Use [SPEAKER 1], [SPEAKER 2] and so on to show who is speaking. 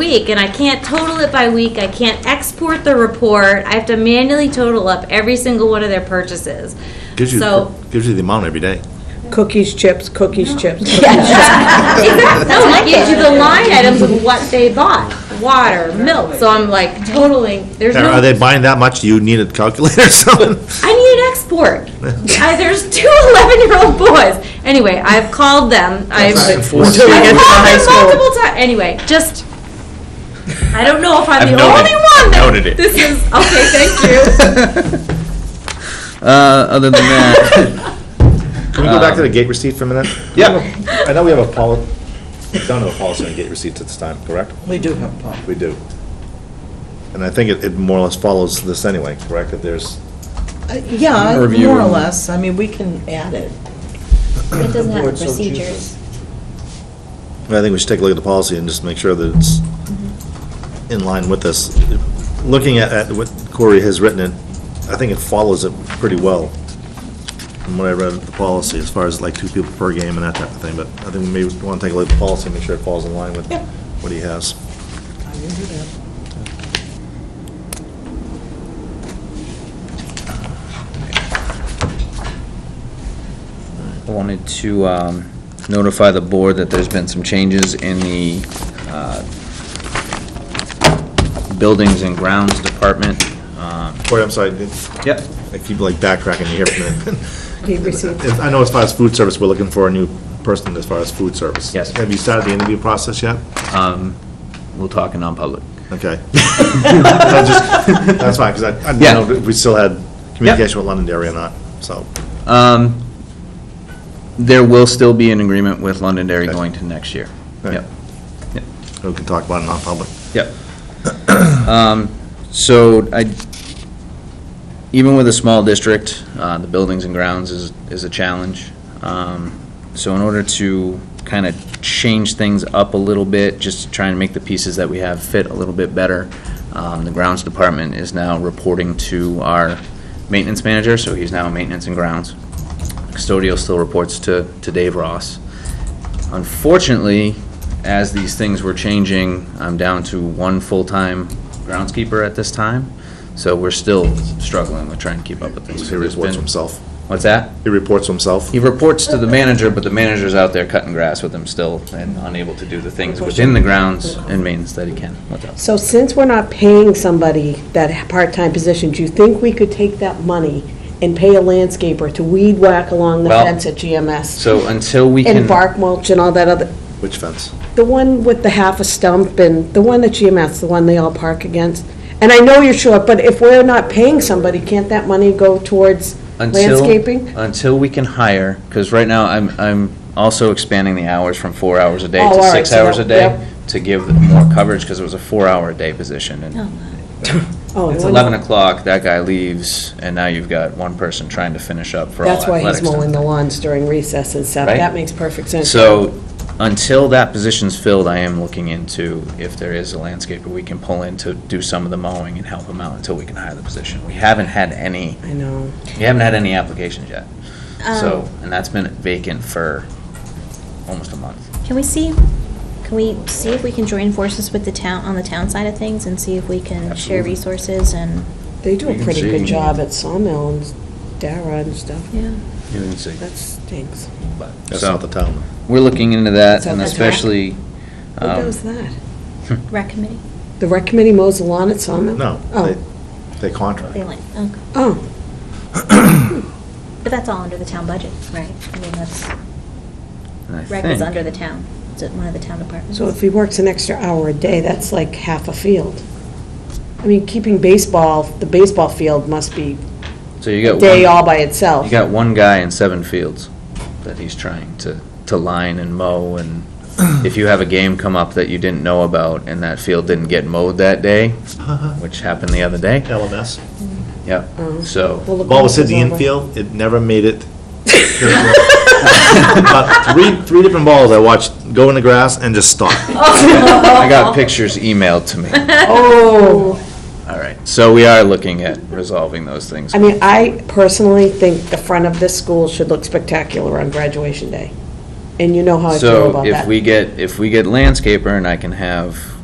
[SPEAKER 1] week, and I can't total it by week, I can't export the report, I have to manually total up every single one of their purchases.
[SPEAKER 2] Gives you,
[SPEAKER 1] So,
[SPEAKER 2] gives you the amount every day.
[SPEAKER 3] Cookies, chips, cookies, chips.
[SPEAKER 1] no, it gives you the line items of what they bought, water, milk, so I'm like totaling, there's
[SPEAKER 2] Are
[SPEAKER 1] no.
[SPEAKER 2] are they buying that much? Do you need a calculator or something?
[SPEAKER 1] I need an export. I, there's two 11 year old boys. Anyway, I've called them. I've, I've called
[SPEAKER 3] Until we get to the high
[SPEAKER 1] them
[SPEAKER 3] school.
[SPEAKER 1] multiple times. Anyway, just. I don't know if I'm
[SPEAKER 2] I've
[SPEAKER 1] the only
[SPEAKER 2] noted-
[SPEAKER 1] one that.
[SPEAKER 2] noted it.
[SPEAKER 1] This is. Okay, thank you.
[SPEAKER 4] Uh, other than that,
[SPEAKER 2] Can we go back to the gate receipt for a minute?
[SPEAKER 4] yeah,
[SPEAKER 2] I know we have a poli, don't have a policy on gate receipts at this time, correct?
[SPEAKER 5] We do have a pump.
[SPEAKER 2] We do. And I think it, it more or less follows this anyway, correct? If there's,
[SPEAKER 5] Uh, Yeah,
[SPEAKER 4] Review
[SPEAKER 5] more or
[SPEAKER 4] and-
[SPEAKER 5] less, I mean, we can add it.
[SPEAKER 6] It doesn't have
[SPEAKER 5] Board
[SPEAKER 6] the
[SPEAKER 5] so chooses.
[SPEAKER 6] procedures.
[SPEAKER 2] I think we should take a look at the policy and just make sure that it's in line with this. Looking at, at what Corey has written, it, I think it follows it pretty well from what I read of the policy, as far as like two people per game and that type of thing, but I think we may want to take a look at the policy and make sure it falls in line with
[SPEAKER 5] Yeah.
[SPEAKER 2] what he has.
[SPEAKER 4] I wanted to um, notify the board that there's been some changes in the uh, Buildings and Grounds Department. Um,
[SPEAKER 2] Corey, I'm sorry, did-
[SPEAKER 4] Yep,
[SPEAKER 2] I keep like backtracking here for a minute.
[SPEAKER 3] Gate receipts.
[SPEAKER 2] If- I know as far as food service, we're looking for a new person as far as food service.
[SPEAKER 4] Yes.
[SPEAKER 2] Have you started the interview process yet?
[SPEAKER 4] um, we'll talk in non-public.
[SPEAKER 2] Okay. I just- That's fine, because I, I didn't
[SPEAKER 4] Yeah.
[SPEAKER 2] know if we still had communication with Londonderry or not, so.
[SPEAKER 4] Um, There will still be an agreement with Londonderry
[SPEAKER 2] Okay.
[SPEAKER 4] going to next year.
[SPEAKER 2] Right.
[SPEAKER 4] Yep,
[SPEAKER 2] We can talk about it non-public.
[SPEAKER 4] yep. Um, So I, even with a small district, uh, the buildings and grounds is, is a challenge. Um, So in order to kind of change things up a little bit, just to try and make the pieces that we have fit a little bit better, um, the grounds department is now reporting to our maintenance manager, so he's now maintenance and grounds. Custodial still reports to, to Dave Ross. Unfortunately, as these things were changing, I'm down to one full-time groundskeeper at this time, so we're still struggling with trying to keep up with things.
[SPEAKER 2] He reports
[SPEAKER 4] There's
[SPEAKER 2] to
[SPEAKER 4] been-
[SPEAKER 2] himself.
[SPEAKER 4] What's that?
[SPEAKER 2] He reports to himself.
[SPEAKER 4] He reports to the manager, but the manager's out there cutting grass with him still and unable to do the things within the grounds and maintenance that he can. What's up?
[SPEAKER 3] So since we're not paying somebody that part-time position, do you think we could take that money and pay a landscaper to weed whack along the
[SPEAKER 4] Well,
[SPEAKER 3] fence at GMS?
[SPEAKER 4] So until we can.
[SPEAKER 3] And bark mulch and all that other,
[SPEAKER 2] Which fence?
[SPEAKER 3] the one with the half a stump and the one at GMS, the one they all park against? And I know you're short, but if we're not paying somebody, can't that money go towards
[SPEAKER 4] until-
[SPEAKER 3] landscaping?
[SPEAKER 4] Until we can hire, because right now I'm, I'm also expanding the hours from four hours a day
[SPEAKER 3] Oh,
[SPEAKER 4] to
[SPEAKER 3] all right,
[SPEAKER 4] six
[SPEAKER 3] so
[SPEAKER 4] hours a
[SPEAKER 3] that-
[SPEAKER 4] day
[SPEAKER 3] yep.
[SPEAKER 4] to give more coverage, because it was a four-hour-a-day position. And
[SPEAKER 3] Oh,
[SPEAKER 4] it's
[SPEAKER 3] one-
[SPEAKER 4] eleven o'clock, that guy leaves, and now you've got one person trying to finish up for all
[SPEAKER 3] That's
[SPEAKER 4] athletics.
[SPEAKER 3] why he's
[SPEAKER 4] and
[SPEAKER 3] mowing the lawns during recess and stuff.
[SPEAKER 4] Right.
[SPEAKER 3] That makes perfect sense.
[SPEAKER 4] So, until that position's filled, I am looking into if there is a landscaper we can pull in to do some of the mowing and help them out until we can hire the position. We haven't had any,
[SPEAKER 3] I know.
[SPEAKER 4] we haven't had any applications yet.
[SPEAKER 1] Oh,
[SPEAKER 4] So,
[SPEAKER 6] Um,
[SPEAKER 4] and that's been vacant for almost a month.
[SPEAKER 6] Can we see, can we see if we can join forces with the town, on the town side of things and see if we can share
[SPEAKER 4] Absolutely.
[SPEAKER 6] resources and,
[SPEAKER 3] They do
[SPEAKER 4] You
[SPEAKER 3] a
[SPEAKER 4] can
[SPEAKER 3] pretty good
[SPEAKER 4] see-
[SPEAKER 3] job at Sawmill and Dara and stuff.
[SPEAKER 6] yeah.
[SPEAKER 4] You can see.
[SPEAKER 3] That stinks.
[SPEAKER 2] That's not the town.
[SPEAKER 4] We're looking into that,
[SPEAKER 3] That's
[SPEAKER 4] and
[SPEAKER 3] not the
[SPEAKER 4] especially,
[SPEAKER 3] Who
[SPEAKER 4] um,
[SPEAKER 3] does that?
[SPEAKER 6] Rec committee,
[SPEAKER 3] The rec committee mows the lawn at Sawmill?
[SPEAKER 2] No,
[SPEAKER 3] Oh,
[SPEAKER 2] they, they contract.
[SPEAKER 6] they like, okay.
[SPEAKER 3] oh,
[SPEAKER 6] But that's all under the town budget, right? I mean, that's,
[SPEAKER 4] and I
[SPEAKER 6] rec is
[SPEAKER 4] think-
[SPEAKER 6] under the town, it's one of the town departments.
[SPEAKER 3] so if he works an extra hour a day, that's like half a field. I mean, keeping baseball, the baseball field must be
[SPEAKER 4] So you
[SPEAKER 3] a
[SPEAKER 4] got
[SPEAKER 3] day all
[SPEAKER 4] one,
[SPEAKER 3] by itself.
[SPEAKER 4] you got one guy in seven fields that he's trying to, to line and mow, and if you have a game come up that you didn't know about, and that field didn't get mowed that day, which happened the other day,
[SPEAKER 2] LMS.
[SPEAKER 3] Mm.
[SPEAKER 4] yep, so.
[SPEAKER 3] Well, the
[SPEAKER 2] Ball was
[SPEAKER 3] grass
[SPEAKER 2] hit
[SPEAKER 3] is
[SPEAKER 2] the
[SPEAKER 3] over.
[SPEAKER 2] infield, it never made it. About three, three different balls I watched go in the grass and just stop.
[SPEAKER 4] I got pictures emailed to me.
[SPEAKER 3] Oh,
[SPEAKER 4] All right, so we are looking at resolving those things.
[SPEAKER 3] I mean, I personally think the front of this school should look spectacular on graduation day. And you know how I feel
[SPEAKER 4] So
[SPEAKER 3] about that.
[SPEAKER 4] if we get, if we get landscaper and I can have